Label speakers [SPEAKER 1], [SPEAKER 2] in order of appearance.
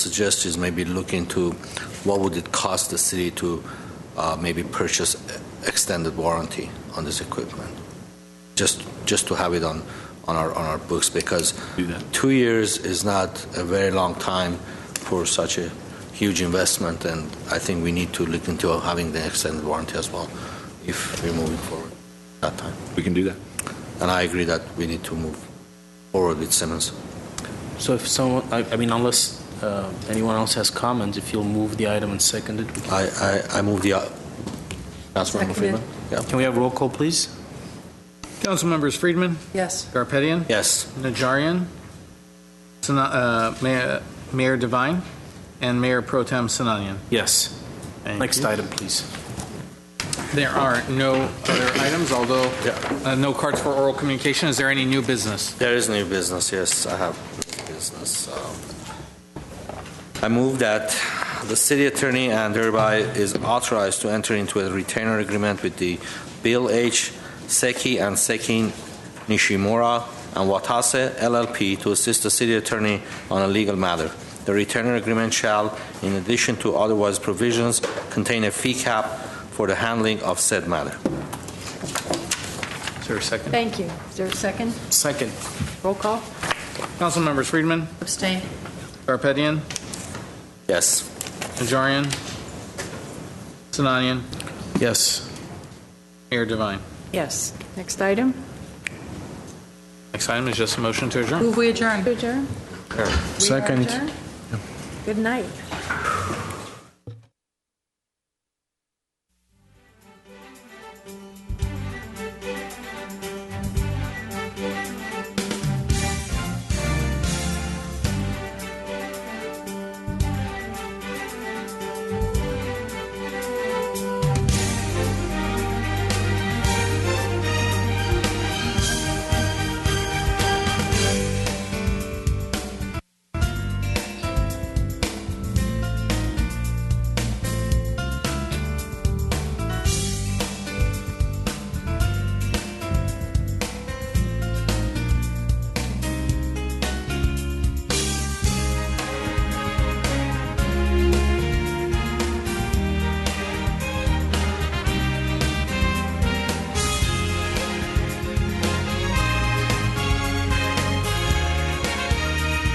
[SPEAKER 1] suggest is maybe look into what would it cost the city to uh, maybe purchase extended warranty on this equipment? Just, just to have it on, on our, on our books, because
[SPEAKER 2] Do that.
[SPEAKER 1] two years is not a very long time for such a huge investment, and I think we need to look into having the extended warranty as well, if we're moving forward that time.
[SPEAKER 2] We can do that.
[SPEAKER 1] And I agree that we need to move forward with Simmons.
[SPEAKER 3] So if someone, I, I mean, unless uh, anyone else has comments, if you'll move the item and second it.
[SPEAKER 1] I, I, I move the, uh, Councilmember
[SPEAKER 4] Seconded.
[SPEAKER 1] Freeman? Yeah.
[SPEAKER 3] Can we have roll call, please?
[SPEAKER 5] Councilmembers Friedman,
[SPEAKER 4] Yes.
[SPEAKER 5] Garpetian,
[SPEAKER 1] Yes.
[SPEAKER 5] Najarian, Sana- uh, Mayor- Mayor Devine, and Mayor Pro Tem Sinanian.
[SPEAKER 3] Yes.
[SPEAKER 5] Thank
[SPEAKER 3] Next
[SPEAKER 5] you.
[SPEAKER 3] item, please.
[SPEAKER 5] There are no other items, although
[SPEAKER 1] Yeah.
[SPEAKER 5] uh, no cards for oral communication. Is there any new business?
[SPEAKER 1] There is new business, yes, I have new business. um, I move that the city attorney and thereby is authorized to enter into a retainer agreement with the Bill H. Seki and Seki Nishimura and Watase LLP to assist the city attorney on a legal matter. The retainer agreement shall, in addition to otherwise provisions, contain a fee cap for the handling of said matter.
[SPEAKER 5] Is there a second?
[SPEAKER 4] Thank you. Is there a second?
[SPEAKER 3] Second.
[SPEAKER 4] Roll call?
[SPEAKER 5] Councilmembers Friedman,
[SPEAKER 4] Abstain.
[SPEAKER 5] Garpetian,
[SPEAKER 1] Yes.
[SPEAKER 5] Najarian, Sinanian,
[SPEAKER 3] Yes.
[SPEAKER 5] Mayor Devine.
[SPEAKER 4] Yes. Next item?
[SPEAKER 5] Next item is just a motion to adjourn.
[SPEAKER 4] Move we adjourn. Adjourn?
[SPEAKER 3] Second.
[SPEAKER 4] Good night.